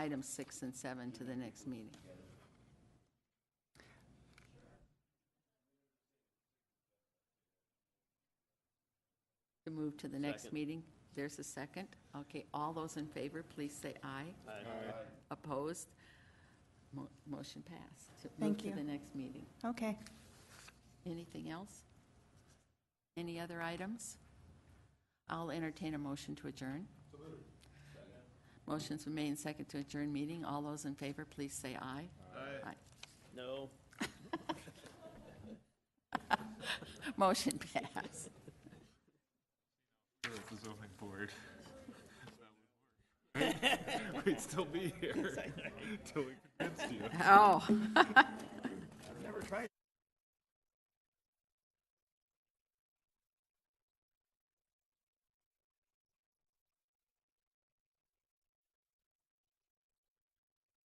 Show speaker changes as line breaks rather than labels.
items six and seven to the next meeting. To move to the next
Second.
meeting, there's a second. Okay, all those in favor, please say aye. Opposed? Mo- Motion passed. To
Thank
Move
you.
to the next meeting.
Okay.
Anything else? Any other items? I'll entertain a motion to adjourn. Motion's been made and second to adjourn meeting. All those in favor, please say aye. Aye.
No.
Motion passed.
If the zoning board. We'd still be here till we convinced you.
Oh,